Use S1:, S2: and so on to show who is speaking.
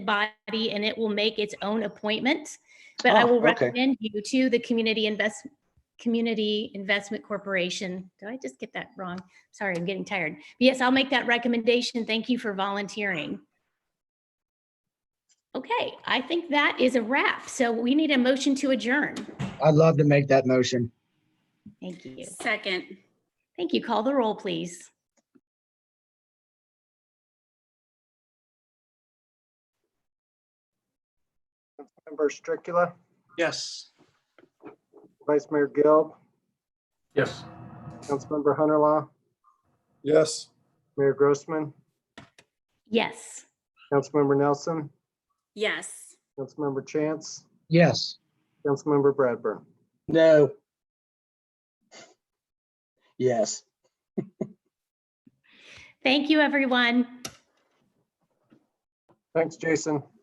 S1: body and it will make its own appointment. But I
S2: Oh,
S1: will
S2: okay.
S1: recommend you to the Community Invest, Community Investment Corporation. Did I just get that wrong? Sorry, I'm getting tired. But Yes, I'll make that recommendation. Thank you for volunteering. Okay, I think that is a wrap. So we need a motion to adjourn.
S2: I'd love to make that motion.
S1: Thank you.
S3: Second.
S1: Thank you. Call the roll, please.
S4: Member Stricula,
S5: Yes.
S4: Vice Mayor Gil,
S5: Yes.
S4: Councilmember Hunterlaw,
S5: Yes.
S4: Mayor Grossman,
S1: Yes.
S4: Councilmember Nelson,
S3: Yes.
S4: Councilmember Chance,
S2: Yes.
S4: Councilmember Bradburn.
S2: No. Yes.
S1: Thank you, everyone.
S4: Thanks, Jason.